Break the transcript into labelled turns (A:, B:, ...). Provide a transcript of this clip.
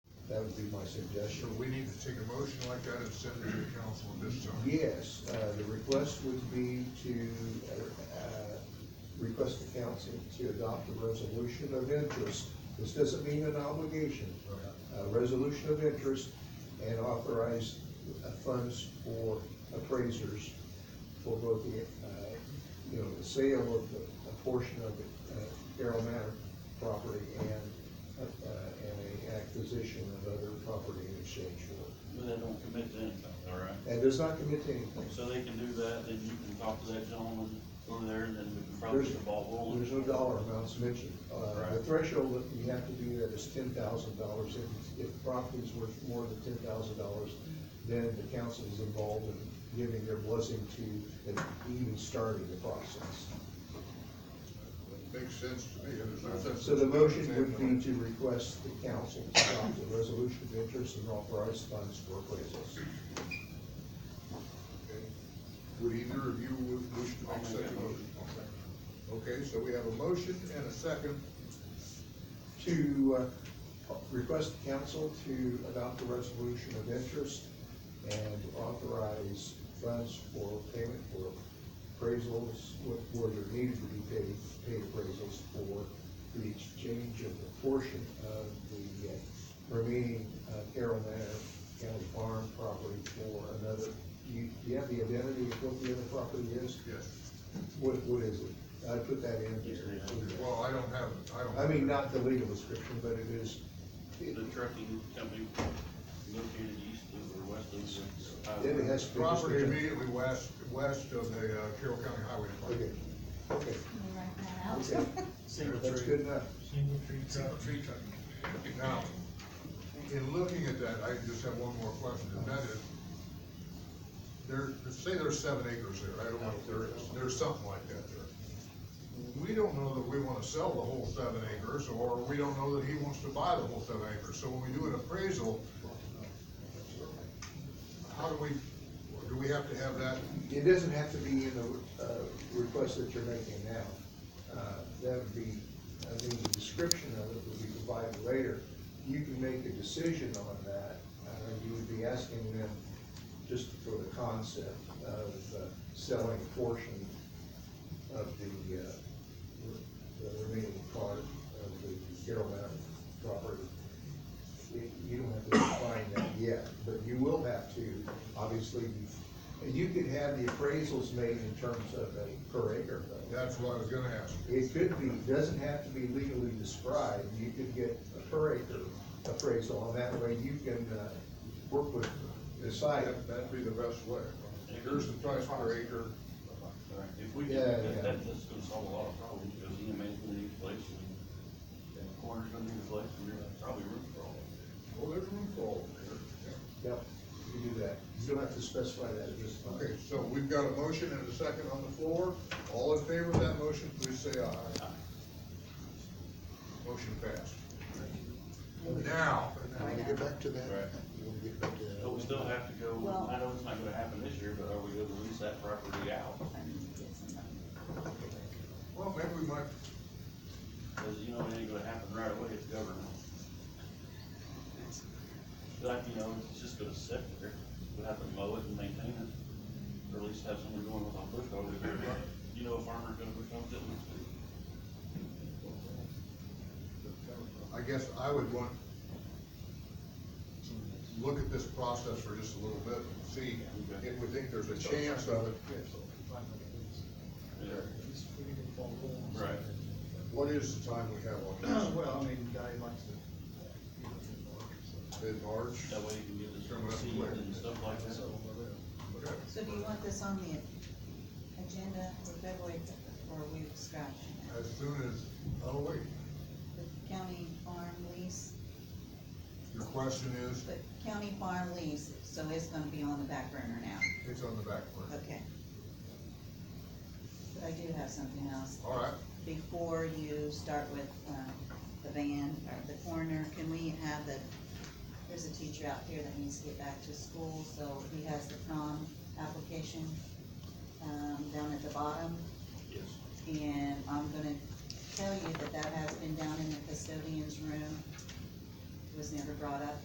A: that would be my suggestion.
B: So we need to take a motion like that and send it to the council at this time.
A: Yes, uh, the request would be to, uh, request the council to adopt a resolution of interest. This doesn't mean an obligation, a resolution of interest and authorize uh, funds for appraisers for both the, uh, you know, the sale of the, a portion of the uh, Carroll Manor property and, uh, and a acquisition of other property in exchange for
C: But they don't commit to anything, all right?
A: it. And does not commit to anything.
C: So they can do that, then you can talk to that gentleman over there, and then we can probably
A: There's-
C: get the ball rolling.
A: There's no dollar amounts mentioned. Uh, the
C: Right.
A: threshold that you have to do that is ten thousand dollars. If, if property is worth more than ten thousand dollars, then the council is involved in giving their blessing to, and even starting the process.
B: Makes sense to me, and it's not that.
A: So the motion would be to request the council to adopt a resolution of interest and authorize funds for appraisals.
B: Okay. Would either of you wi- wish to
C: I'll
B: make
C: make
B: such
C: that
B: a motion?
C: motion.
B: Okay, so we have a motion and a second.
A: To, uh, request the council to adopt a resolution of interest and authorize funds for payment for appraisals, wh- where there needed to be paid, paid appraisals for the exchange of a portion of the uh, remaining uh, Carroll Manor County Farm property for another. Do you, do you have the identity of what the other property is?
B: Yes.
A: What, what is it? I put that in
C: Yes,
A: here.
B: Well, I don't have, it. I don't.
A: I mean, not the legal description, but it is, it,
C: The trucking company located east of or west of. the highway.
A: it has to be. just-
B: Property immediately west, west of the uh, Carroll County Highway
A: Okay,
B: Department.
A: okay,
D: Write that out.
A: okay, that's good enough.
E: Single tree truck.
B: Tree trucking. Now, in looking at that, I just have one more question, and that is, there, say there's seven acres there, I don't know if there is, there's something like that there. We don't know that we wanna sell the whole seven acres, or we don't know that he wants to buy the whole seven acres, so when we do an appraisal, how do we, do we have to have that,
A: It doesn't have to be in the, uh, request that you're making now. Uh, that would be, I think the description of it would be provided later. You can make a decision on that. Uh, you would be asking them just for the concept of uh, selling a portion of the, uh, the remaining part of the Carroll Manor property. You you don't have to define that yet, but you will have to, obviously, you- you could have the appraisals made in terms of a per acre. though.
B: that's what I was gonna ask.
A: It could be, doesn't have to be legally described, you could get a per acre appraisal, and that way you can, uh, work with, decide.
B: That- That'd be the best way. Here's the price per acre,
C: Right. If we can,
A: Yeah,
C: that,
A: yeah.
C: that- that's gonna solve a lot of problems, because EMA's gonna need a place, and- and the corner's gonna need a place, and there's probably room for all of it.
B: well, Oh, there's room for all of it. Yeah.
A: Yep, you can do that, you don't have to specify that at this time.
B: Okay, so we've got a motion and a second on the floor. All in favor of that motion, please say aye. Motion passed. Now,
F: When we get back to that,
C: Right.
F: when we get back to that.
C: But we still have to go,
D: Well-
C: I know it's not gonna happen this year, but are we gonna lease that property out?
D: I need to get some money.
B: well, maybe we might,
C: Cause you know, it ain't gonna happen right away, it's government. Like, you know, it's just gonna sit there, we have to mow it and maintain it, or at least have someone going with a bush hog, if you're- you know, a farmer's gonna bush hog it next week.
B: I guess I would want to look at this process for just a little bit and see if we think there's a chance of it.
C: Yeah.
E: Just we need to follow along.
C: Right.
B: What is the time we have on
E: Well, I mean, guy likes to. you know, to work, so-
B: this? Mid-March?
C: That way you can get the
B: Sure, we'll have to
C: seed
B: clear.
C: and stuff like that.
E: so, uh,
B: Okay.
D: So do you want this on the agenda for February, or are we scratching it?
B: As soon as, oh, wait,
D: The county farm lease,
B: your question is,
D: the county farm lease, so it's gonna be on the back burner now,
B: it's on the back burner.
D: okay. But I do have something else.
B: All right,
D: before you start with, um, the van or the coroner, can we have the, there's a teacher out here that needs to get back to school, so he has the prom application, um, down at the bottom.
C: Yes.
D: And I'm gonna tell you that that has been down in the custodian's room, was never brought up